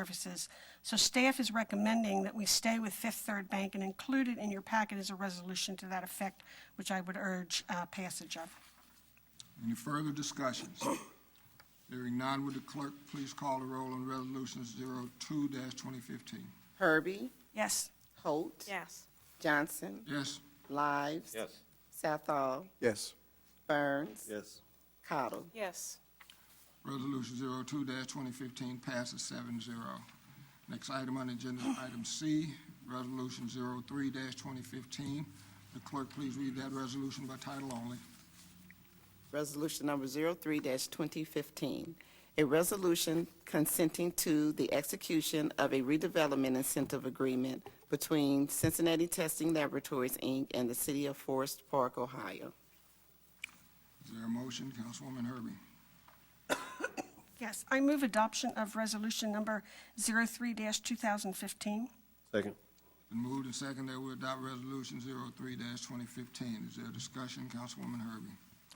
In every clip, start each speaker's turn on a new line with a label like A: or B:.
A: services. So staff is recommending that we stay with Fifth Third Bank, and included in your packet is a resolution to that effect, which I would urge uh, passage of.
B: Any further discussions? Hearing none, would the clerk please call the roll on Resolution 02-2015?
C: Herbie,
A: Yes,
C: Holt,
D: Yes.
C: Johnson,
B: Yes,
C: Lives,
E: Yes.
C: Southall,
F: Yes.
C: Burns,
E: Yes.
C: Cottle.
D: Yes.
B: Resolution 02-2015 passes 7-0. Next item on the agenda is item C, Resolution 03-2015. The clerk please read that resolution by title only.
C: Resolution number 03-2015, a resolution consenting to the execution of a redevelopment incentive agreement between Cincinnati Testing Laboratories, Inc. and the City of Forest Park, Ohio.
B: Is there a motion, Councilwoman Herbie?
A: yes. I move adoption of resolution number 03-2015.
E: Second.
B: Been moved and seconded that we adopt Resolution 03-2015. Is there a discussion, Councilwoman Herbie?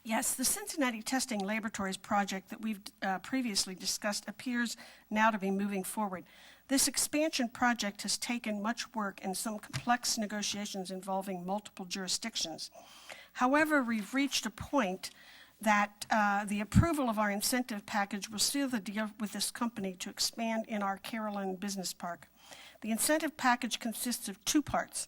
A: Yes, the Cincinnati Testing Laboratories project that we've uh, previously discussed appears now to be moving forward. This expansion project has taken much work and some complex negotiations involving multiple jurisdictions. However, we've reached a point that uh, the approval of our incentive package will seal the deal with this company to expand in our Carolyn Business Park. The incentive package consists of two parts.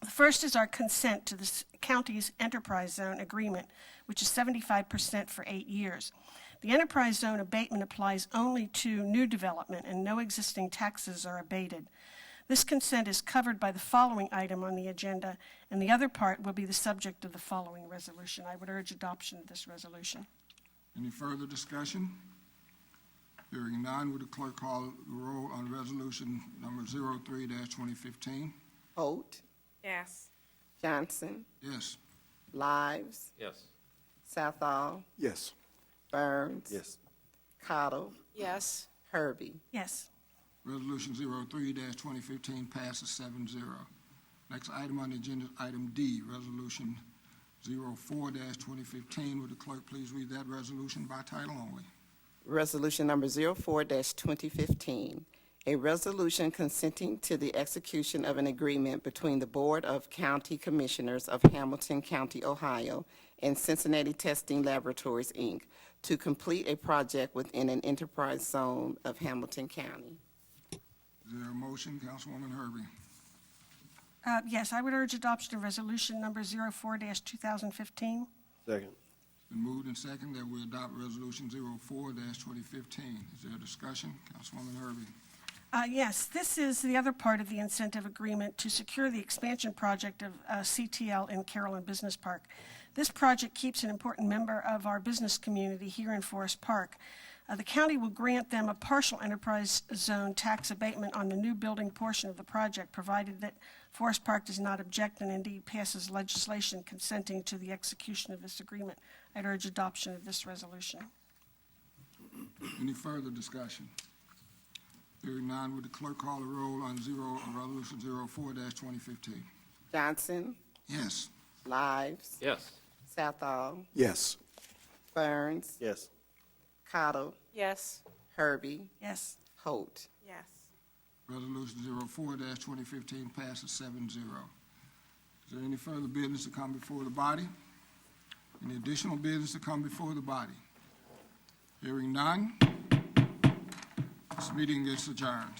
A: The first is our consent to the s- county's enterprise zone agreement, which is 75% for eight years. The enterprise zone abatement applies only to new development, and no existing taxes are abated. This consent is covered by the following item on the agenda, and the other part will be the subject of the following resolution. I would urge adoption of this resolution.
B: Any further discussion? Hearing none, would the clerk call the roll on resolution number 03-2015?
C: Holt,
D: Yes.
C: Johnson,
B: Yes.
C: Lives,
E: Yes.
C: Southall,
F: Yes.
C: Burns.
E: Yes.
C: Cottle,
D: Yes.
C: Herbie.
A: Yes.
B: Resolution 03-2015 passes 7-0. Next item on the agenda is item D, Resolution 04-2015. Would the clerk please read that resolution by title only?
C: Resolution number 04-2015, a resolution consenting to the execution of an agreement between the Board of County Commissioners of Hamilton County, Ohio, and Cincinnati Testing Laboratories, Inc., to complete a project within an enterprise zone of Hamilton County.
B: Is there a motion, Councilwoman Herbie?
A: Uh, Yes, I would urge adoption of resolution number 04-2015.
E: Second.
B: Been moved and seconded that we adopt Resolution 04-2015. Is there a discussion, Councilwoman Herbie?
A: Uh, Yes, this is the other part of the incentive agreement to secure the expansion project of uh, CTL in Carolyn Business Park. This project keeps an important member of our business community here in Forest Park. Uh, The county will grant them a partial enterprise zone tax abatement on the new building portion of the project, provided that Forest Park does not object and indeed passes legislation consenting to the execution of this agreement. I'd urge adoption of this resolution.
B: Any further discussion? Hearing none, would the clerk call the roll on zero, on resolution zero four dash twenty fifteen?
C: Johnson,
B: Yes.
C: Lives,
E: Yes.
C: Southall,
F: Yes.
C: Burns,
E: Yes.
C: Cottle,
D: Yes.
C: Herbie,
A: Yes.
C: Holt.
D: Yes.
B: Resolution zero four dash twenty fifteen passes seven zero. Is there any further business to come before the body? Any additional business to come before the body? Hearing none, this meeting is adjourned.